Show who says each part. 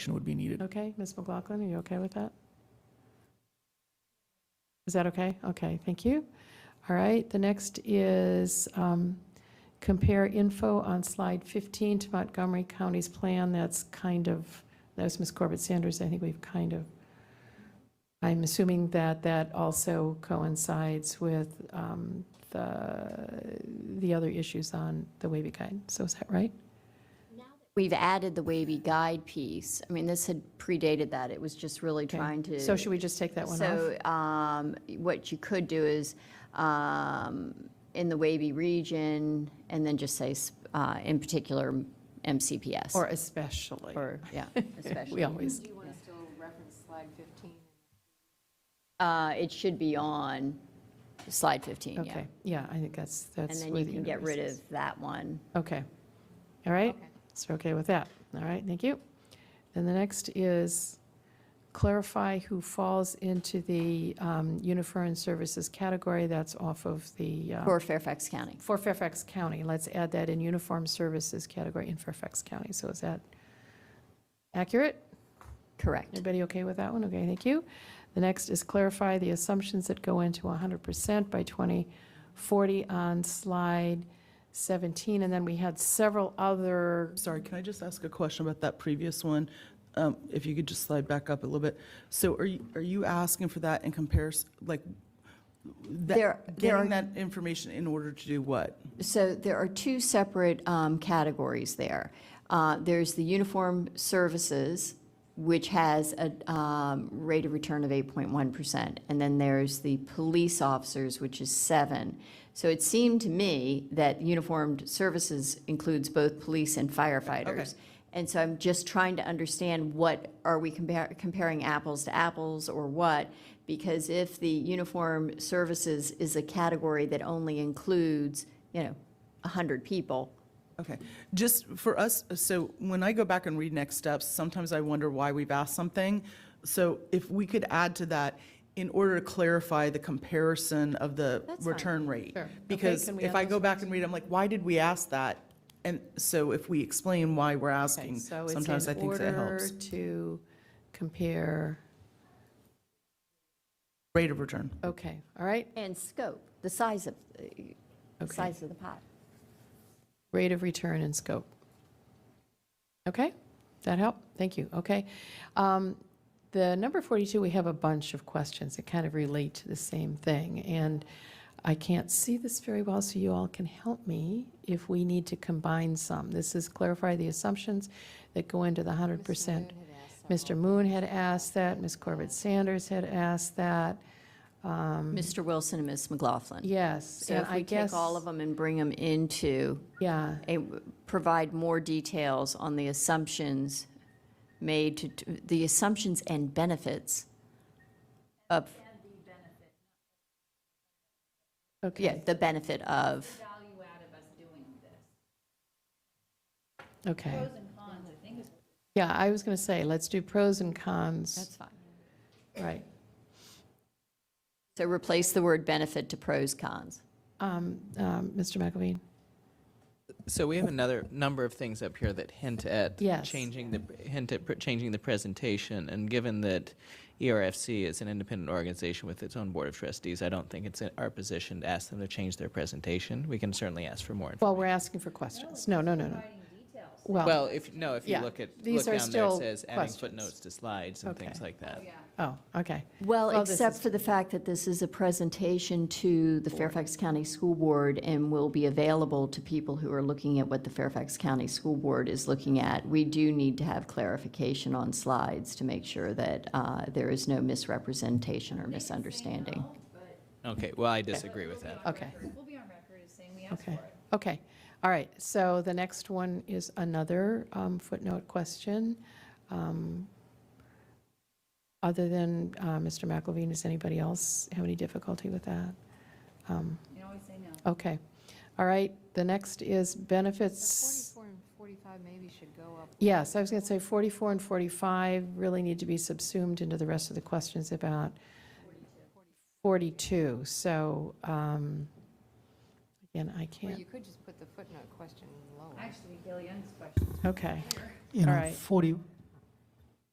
Speaker 1: action would be needed.
Speaker 2: Okay, Ms. McLaughlin, are you okay with that? Is that okay? Okay, thank you. All right, the next is um, compare info on slide 15 to Montgomery County's plan. That's kind of, that was Ms. Corbett Sanders, I think we've kind of, I'm assuming that that also coincides with um, the, the other issues on the Wavy Guide. So is that right?
Speaker 3: We've added the wavy guide piece. I mean, this had predated that. It was just really
Speaker 2: Okay.
Speaker 3: trying to.
Speaker 2: So should we just take that one off?
Speaker 3: So, um, what you could do is, um, in the wavy region, and then just say, s- uh, in particular, MCPS.
Speaker 2: Or especially?
Speaker 3: Or, yeah,
Speaker 2: We
Speaker 3: especially.
Speaker 2: always,
Speaker 4: Do you want to still reference slide 15?
Speaker 3: Uh, it should be on slide 15, yeah.
Speaker 2: okay, yeah, I think that's,
Speaker 3: And
Speaker 2: that's.
Speaker 3: then
Speaker 2: where
Speaker 3: you
Speaker 2: the
Speaker 3: can get rid Oh.
Speaker 2: universe
Speaker 3: of
Speaker 2: is.
Speaker 3: that one.
Speaker 2: Okay, all right,
Speaker 4: Okay.
Speaker 2: so okay with that, all right, thank you. Then the next is clarify who falls into the um, uniform services category, that's off of the, uh,
Speaker 3: For Fairfax County.
Speaker 2: for Fairfax County, let's add that in uniform services category in Fairfax County, so is that accurate?
Speaker 3: Correct.
Speaker 2: Everybody okay with that one? Okay, thank you. The next is clarify the assumptions that go into 100% by 2040 on slide 17, and then we had several other,
Speaker 5: Sorry, can I just ask a question about that previous one? Um, If you could just slide back up a little bit. So are you, are you asking for that in comparison, like, that-
Speaker 3: There- there are-
Speaker 5: getting that information in order to do what?
Speaker 3: So there are two separate um, categories there. Uh, There's the uniform services, which has a um, rate of return of 8.1%, and then there's the police officers, which is 7. So it seemed to me that uniformed services includes both police and firefighters. And so I'm just trying to understand what, are we compar- comparing apples to apples or what? Because if the uniform services is a category that only includes, you know, 100 people,
Speaker 5: Okay, just for us, so when I go back and read next steps, sometimes I wonder why we've asked something. So if we could add to that, in order to clarify the comparison of the
Speaker 3: That's fine.
Speaker 5: return rate.
Speaker 2: Sure. Okay,
Speaker 5: Because
Speaker 2: can we
Speaker 5: if
Speaker 2: add
Speaker 5: I
Speaker 2: those
Speaker 5: go back and read, I'm like, why did we ask that? And so if we explain why we're
Speaker 2: okay,
Speaker 5: asking,
Speaker 2: so it's
Speaker 5: sometimes I
Speaker 2: in
Speaker 5: think that
Speaker 2: order
Speaker 5: helps.
Speaker 2: to compare,
Speaker 5: Rate of return.
Speaker 2: okay, all right,
Speaker 3: and scope, the size of, uh, the
Speaker 2: okay.
Speaker 3: size of the pot.
Speaker 2: Rate of return and scope. Okay, that help? Thank you, okay. Um, The number 42, we have a bunch of questions that kind of relate to the same thing, and I can't see this very well, so you all can help me if we need to combine some. This is clarify the assumptions that go into the 100%. Mr. Moon had asked that, Ms. Corbett Sanders had asked that,
Speaker 3: Mr. Wilson and Ms. McLaughlin.
Speaker 2: yes.
Speaker 3: So
Speaker 2: and
Speaker 3: if
Speaker 2: I
Speaker 3: we take all
Speaker 2: guess-
Speaker 3: of them and bring them into,
Speaker 2: Yeah,
Speaker 3: a- provide more details on the assumptions made to- to, the assumptions and benefits of
Speaker 2: okay.
Speaker 3: Yeah, the benefit of,
Speaker 2: Okay. Pros and cons, I think. Yeah, I was going to say, let's do pros and cons,
Speaker 3: that's fine.
Speaker 2: right.
Speaker 3: So replace the word benefit to pros, cons.
Speaker 2: Um, um, Mr. McElveen?
Speaker 6: So we have another number of things up here that hint at
Speaker 2: Yes.
Speaker 6: changing the hint at pr- changing the presentation. And given that E ERFC is an independent organization with its own board of trustees, I don't think it's in our position to ask them to change their presentation. We can certainly ask for more.
Speaker 2: Well, we're asking for questions. No, no, no, no. Well,
Speaker 6: well, if no, if you
Speaker 2: yeah,
Speaker 6: look at
Speaker 2: these
Speaker 6: look
Speaker 2: are
Speaker 6: down
Speaker 2: still
Speaker 6: there, it says adding
Speaker 2: questions.
Speaker 6: footnotes to slides and
Speaker 2: Okay.
Speaker 6: things like that.
Speaker 2: oh, okay.
Speaker 3: Well,
Speaker 2: Well, this
Speaker 3: except
Speaker 2: is-
Speaker 3: for the fact that this is a presentation to the Fairfax County School Board and will be available to people who are looking at what the Fairfax County School Board is looking at. We do need to have clarification on slides to make sure that uh, there is no misrepresentation or misunderstanding.
Speaker 6: Okay. Well, I disagree with that.
Speaker 2: Okay,
Speaker 4: We'll be on record as saying we asked for
Speaker 2: okay,
Speaker 4: it.
Speaker 2: okay. All right, so the next one is another um, footnote question. Um, Other than uh, Mr. McElveen, does anybody else have any difficulty with that? Um,
Speaker 4: You can always say no.
Speaker 2: Okay, all right, the next is benefits.
Speaker 4: and 45 maybe should go up.
Speaker 2: Yes, I was going to say 44 and 45 really need to be subsumed into the rest of the questions about 42. So, um, again, I can't,
Speaker 4: could just put the footnote question lower. Actually, Gail Young's question.
Speaker 2: okay,
Speaker 7: You
Speaker 2: All
Speaker 7: know,
Speaker 2: right.
Speaker 7: 40,